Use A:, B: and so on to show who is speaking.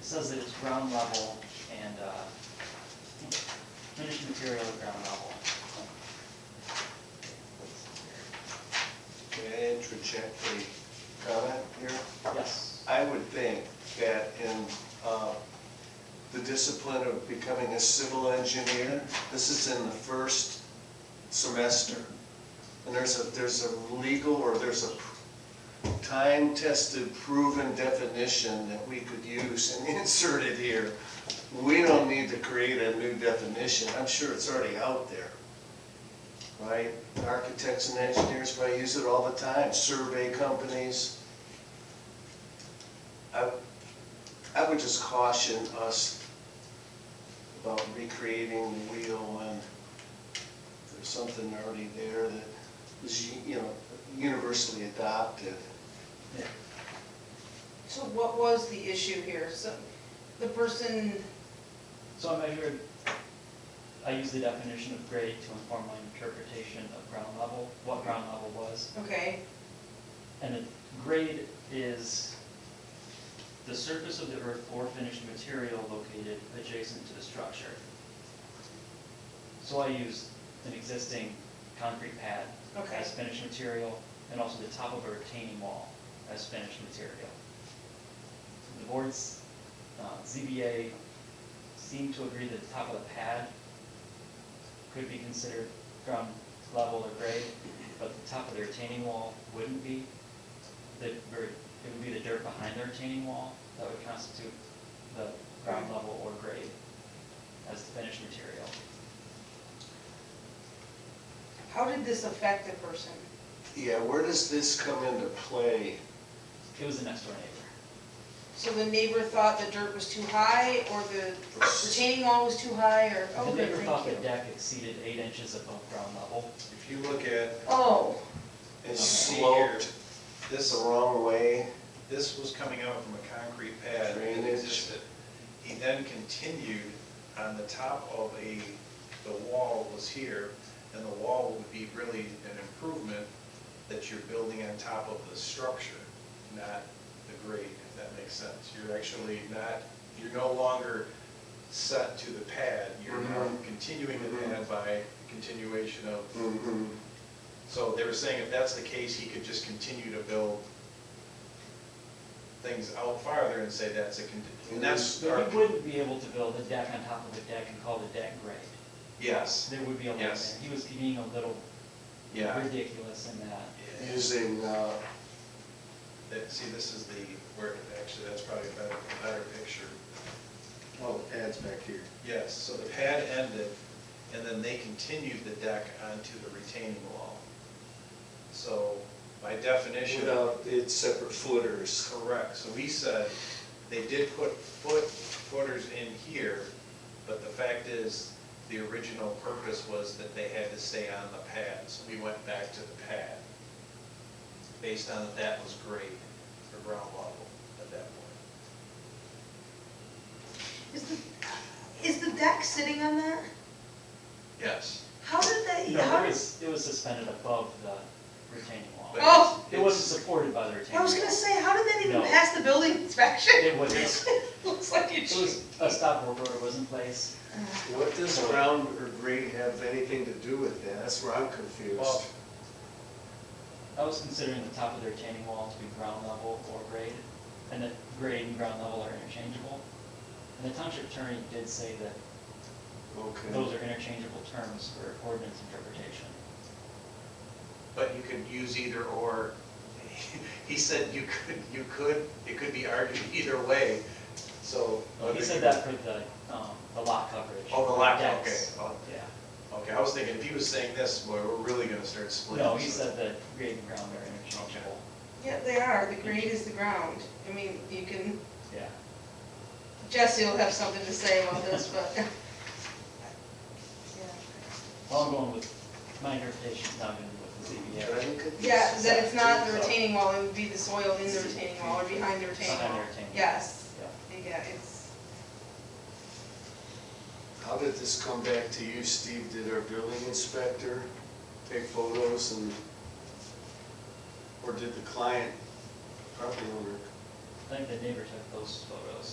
A: says that it's ground level and, uh, finished material at ground level.
B: Can I interject a comment here?
A: Yes,
B: I would think that in uh, the discipline of becoming a civil engineer, this is in the first semester. And there's a, there's a legal or there's a time-tested proven definition that we could use and insert it here. We don't need to create a new definition. I'm sure it's already out there. Right? Architects and engineers probably use it all the time, survey companies. I, I would just caution us about recreating the wheel when there's something already there that is, you know, universally adopted.
C: So what was the issue here? So the person,
A: so I measured, I used the definition of grade to inform my interpretation of ground level, what ground level was.
C: okay,
A: And a grade is the surface of the earth or finished material located adjacent to the structure. So I used an existing concrete pad
C: Okay.
A: as finished material, and also the top of a retaining wall as finished material. The board's uh, ZBA seemed to agree that the top of the pad could be considered ground level or grade, but the top of the retaining wall wouldn't be. The, or it would be the dirt behind the retaining wall that would constitute the ground level or grade as the finished material.
C: how did this affect the person?
B: Yeah, where does this come into play?
A: It was the next door neighbor.
C: So the neighbor thought the dirt was too high, or the retaining wall was too high, or, oh,
A: The
C: good,
A: neighbor thought the
C: thank you.
A: deck exceeded eight inches above ground level.
B: If you look at
C: Oh,
B: it
D: See here.
B: sloped this the wrong way,
D: This was coming out from a concrete pad that
B: Drainage.
D: existed. He then continued on the top of a, the wall was here, and the wall would be really an improvement that you're building on top of the structure, not the grade, if that makes sense. You're actually not, you're no longer set to the pad, you're now
B: Mhm.
D: continuing the pad by continuation of
B: Mhm.
D: so they were saying if that's the case, he could just continue to build things out farther and say that's a, con- and that's, our-
A: But you wouldn't be able to build a deck on top of a deck and call the deck grade.
D: yes,
A: There would be a line there.
D: Yes.
A: He was being a little
D: yeah.
A: ridiculous in that.
D: Yeah.
B: using, uh,
D: That- See, this is the, where, actually, that's probably a better, a better picture.
B: oh, the pad's back here.
D: Yes, so the pad ended, and then they continued the deck onto the retaining wall. So by definition.
B: Without its separate footers.
D: Correct, so he said, they did put foot, footers in here, but the fact is, the original purpose was that they had to stay on the pad, so we went back to the pad. Based on that that was grade, or ground level at that point.
C: is the, is the deck sitting on that?
D: Yes.
C: How did they,
A: No,
C: how
A: it
C: did,
A: was, it was suspended above the retaining wall.
D: but
C: Oh!
D: it's-
A: It wasn't supported by the retaining wall.
C: I was gonna say, how did that even
A: No.
C: pass the building inspection?
A: It was-
C: Looks like you
A: It was, a stop work order was in place.
B: What does ground or grade have anything to do with that? That's where I'm
D: Well,
B: confused.
A: I was considering the top of the retaining wall to be ground level or grade, and that grade and ground level are interchangeable. And the township attorney did say that
B: Okay.
A: those are interchangeable terms for ordinance interpretation.
D: But you could use either or, he said you could, you could, it could be argued either way, so.
A: He said that for the, um, the lot coverage.
D: Oh, the lot, okay,
A: decks.
D: well,
A: Yeah.
D: Okay, I was thinking, if he was saying this, boy, we're really gonna start splitting.
A: No, he said that grade and ground are interchangeable.
C: Yeah, they are, the grade is the ground. I mean, you can,
A: Yeah.
C: Jesse will have something to say about this, but.
A: Well, I'm going with, my interpretation's not gonna be with the ZBA.
B: Can I look at this?
C: Yeah, that it's not the retaining wall, it would be the soil in the retaining wall or behind the retaining
A: Behind the
C: wall.
A: retaining wall.
C: Yes,
A: Yeah.
C: yeah, it's,
B: How did this come back to you, Steve? Did our building inspector take photos and, or did the client, property owner,
A: I think the neighbor took those photos.